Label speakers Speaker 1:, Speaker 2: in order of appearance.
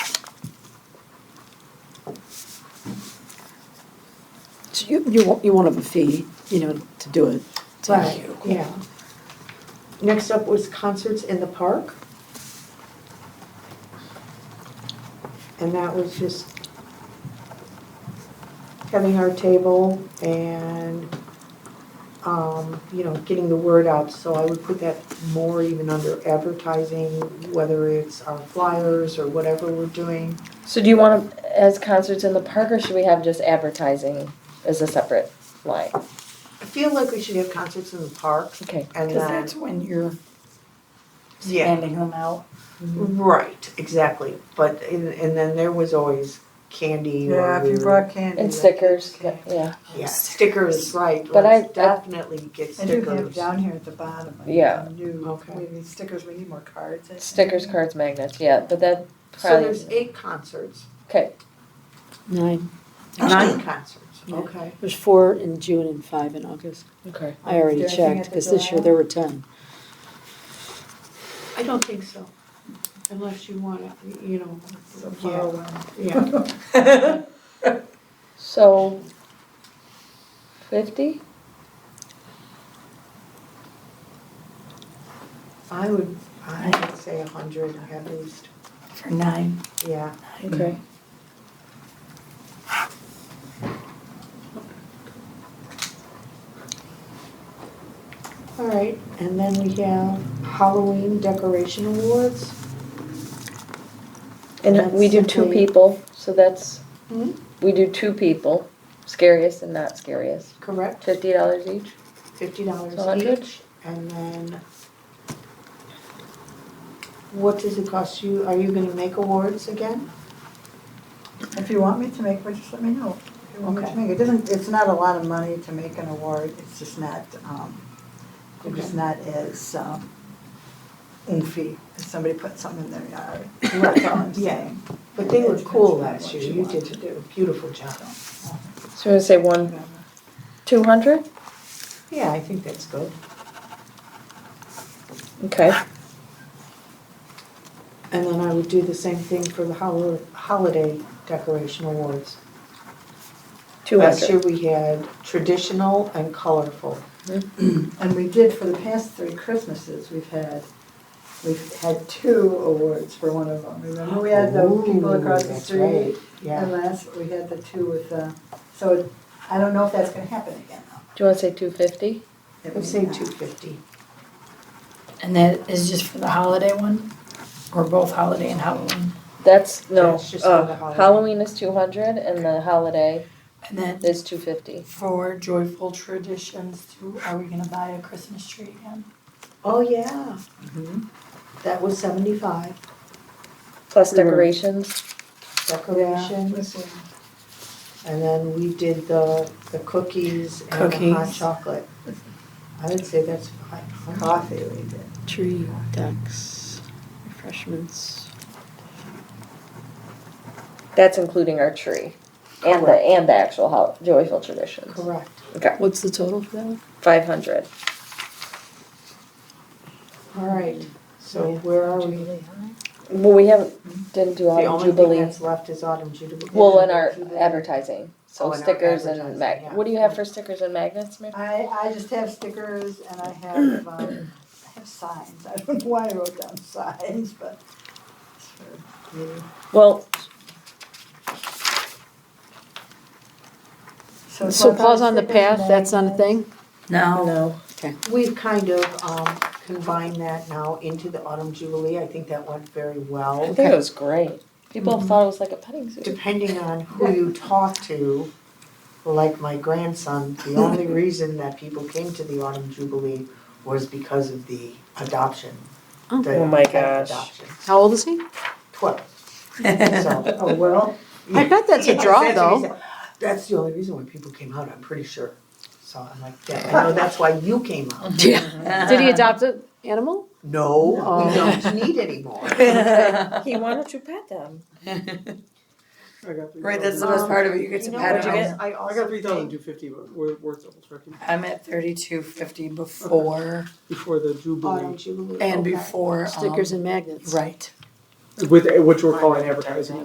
Speaker 1: So You, you won't, you won't have a fee, you know, to do it. So-
Speaker 2: Right, yeah. Next up was concerts in the park. And that was just having our table and, um, you know, getting the word out. So I would put that more even under advertising, whether it's our flyers or whatever we're doing.
Speaker 3: So do you want to, as concerts in the park, or should we have just advertising as a separate line?
Speaker 2: I feel like we should have concerts in the park
Speaker 3: Okay.
Speaker 2: and
Speaker 1: Because
Speaker 2: then,
Speaker 1: that's when you're
Speaker 2: yeah.
Speaker 1: handing them out.
Speaker 2: Right, exactly, but, and, and then there was always candy or.
Speaker 4: Yeah, if you brought candy.
Speaker 3: And
Speaker 4: like-
Speaker 3: stickers, yeah,
Speaker 2: Yeah, stickers, right,
Speaker 3: But I-
Speaker 2: let's definitely get
Speaker 4: I do have
Speaker 2: stickers.
Speaker 4: down here at the bottom. I
Speaker 3: Yeah.
Speaker 4: knew
Speaker 2: Okay.
Speaker 4: we need stickers, we need more cards. I think.
Speaker 3: stickers, cards, magnets, yeah, but that
Speaker 2: So
Speaker 3: probably,
Speaker 2: there's eight concerts,
Speaker 3: okay,
Speaker 1: Nine.
Speaker 5: Oh,
Speaker 2: nine concerts,
Speaker 1: Yeah.
Speaker 2: okay.
Speaker 1: There's four in June and five in August.
Speaker 3: okay.
Speaker 1: I already
Speaker 4: Is there anything
Speaker 1: checked,
Speaker 4: at the
Speaker 1: because this year
Speaker 4: July?
Speaker 1: there were ten.
Speaker 2: I don't think so, unless you wanna, you know,
Speaker 4: So
Speaker 2: yeah,
Speaker 4: follow them.
Speaker 2: yeah,
Speaker 3: So fifty?
Speaker 2: I would, I would say a hundred at least,
Speaker 5: For nine.
Speaker 2: yeah.
Speaker 3: Okay.
Speaker 2: All right, and then we have Halloween decoration awards. Mm-hmm.
Speaker 3: And we do two
Speaker 2: Simply-
Speaker 3: people, so that's,
Speaker 2: Hmm?
Speaker 3: we do two people, scariest and not scariest,
Speaker 2: Correct,
Speaker 3: fifty dollars each?
Speaker 2: fifty dollars
Speaker 3: So 100?
Speaker 2: each, and then what does it cost you, are you gonna make awards again?
Speaker 4: If you want me to make one, just let me know. If you want me to
Speaker 2: Okay.
Speaker 4: make, it doesn't, it's not a lot of money to make an award, it's just not, um, it's
Speaker 2: Okay.
Speaker 4: not as, um, oofy if somebody put something in their yard.
Speaker 2: Right.
Speaker 4: That's all I'm saying.
Speaker 2: But they were cool
Speaker 4: Yeah,
Speaker 2: last year,
Speaker 4: what you
Speaker 2: you
Speaker 4: want to
Speaker 2: did a beautiful job.
Speaker 3: So we're gonna say one, two hundred?
Speaker 2: Yeah, I think that's good.
Speaker 3: Okay,
Speaker 2: And then I would do the same thing for the hol- holiday decoration awards.
Speaker 3: two
Speaker 2: Last year
Speaker 3: hundred.
Speaker 2: we had traditional and colorful.
Speaker 4: And we did, for the past three Christmases, we've had, we've had two awards for one of them. Remember,
Speaker 2: Oh,
Speaker 4: we had the people
Speaker 2: Ooh,
Speaker 4: across the
Speaker 2: that's
Speaker 4: street?
Speaker 2: right,
Speaker 4: And
Speaker 2: Yeah,
Speaker 4: last, we had the two with the, so I don't know if that's gonna happen again though.
Speaker 3: Do you wanna say two fifty?
Speaker 4: It
Speaker 2: I'd
Speaker 4: may
Speaker 2: say
Speaker 4: not.
Speaker 2: two fifty.
Speaker 5: And that is just for the holiday one? Or both holiday and Halloween?
Speaker 3: That's, no,
Speaker 2: That's just for the
Speaker 3: uh,
Speaker 2: holiday.
Speaker 3: Halloween is two hundred and the holiday
Speaker 5: And then
Speaker 3: is two fifty.
Speaker 5: for joyful traditions too, are we gonna buy a Christmas tree again?
Speaker 2: Oh, yeah. Mm-hmm. That was seventy-five,
Speaker 3: Plus
Speaker 1: We were-
Speaker 3: decorations,
Speaker 2: decorations. And then we did the, the cookies and the hot
Speaker 5: Cookies.
Speaker 2: chocolate. I would say that's fine.
Speaker 4: Coffee we did.
Speaker 1: Tree decks, refreshments.
Speaker 3: that's including our tree and the,
Speaker 2: Correct.
Speaker 3: and the actual hol- joyful traditions.
Speaker 2: Correct.
Speaker 3: Okay,
Speaker 1: What's the total for that one?
Speaker 3: five hundred.
Speaker 2: All right, so where are we?
Speaker 3: Well, we haven't, didn't do
Speaker 2: The
Speaker 3: autumn
Speaker 2: only thing
Speaker 3: jubilee.
Speaker 2: that's left is autumn jubilee.
Speaker 3: Well, in our
Speaker 2: Jubilee.
Speaker 3: advertising,
Speaker 2: Oh, in
Speaker 3: so
Speaker 2: our
Speaker 3: stickers
Speaker 2: advertising,
Speaker 3: and
Speaker 2: yeah.
Speaker 3: mag, what do you have for stickers and magnets, ma'am?
Speaker 4: I, I just have stickers and I have, um, I have signs. I don't know why I wrote down signs, but it's for me.
Speaker 3: Well,
Speaker 4: So
Speaker 1: So
Speaker 4: it's
Speaker 1: pause on the
Speaker 4: stickers and
Speaker 1: path, that's not a
Speaker 4: magnets.
Speaker 1: thing?
Speaker 5: No.
Speaker 3: Oh, no,
Speaker 2: We've kind of um, combined that now into the autumn jubilee. I think that went very
Speaker 3: I
Speaker 2: well.
Speaker 3: think it was great. People thought it was like a petting zoo.
Speaker 2: Depending on who you talk to, like my grandson, the only reason that people came to the autumn jubilee was because of the adoption.
Speaker 1: Oh.
Speaker 2: the
Speaker 3: Oh my
Speaker 2: pet
Speaker 3: gosh.
Speaker 2: adoption.
Speaker 1: How old is he?
Speaker 2: Twelve, so. Oh, well.
Speaker 1: I bet that's a
Speaker 2: Yes,
Speaker 1: draw,
Speaker 2: that's what he
Speaker 1: though.
Speaker 2: said. That's the only reason why people came out, I'm pretty sure. So I'm like, yeah, I know that's why you came out.
Speaker 5: Uh,
Speaker 1: Yeah. Did he adopt an animal?
Speaker 2: No,
Speaker 1: Oh.
Speaker 2: we don't need anymore.
Speaker 3: He wanted to pet them.
Speaker 5: Right, that's the best part of it, you get to
Speaker 2: You know
Speaker 5: pat
Speaker 2: what
Speaker 3: you
Speaker 5: it
Speaker 3: get?
Speaker 5: on.
Speaker 2: else I
Speaker 6: I got
Speaker 2: also
Speaker 6: three thousand
Speaker 2: think,
Speaker 6: two fifty, but we're worth double checking
Speaker 5: I'm at thirty-two fifty before
Speaker 6: before the
Speaker 2: autumn
Speaker 6: jubilee,
Speaker 2: jubilee.
Speaker 5: and
Speaker 2: okay.
Speaker 5: before. um,
Speaker 1: Stickers and magnets.
Speaker 5: Right.
Speaker 6: with, which we're calling advertising.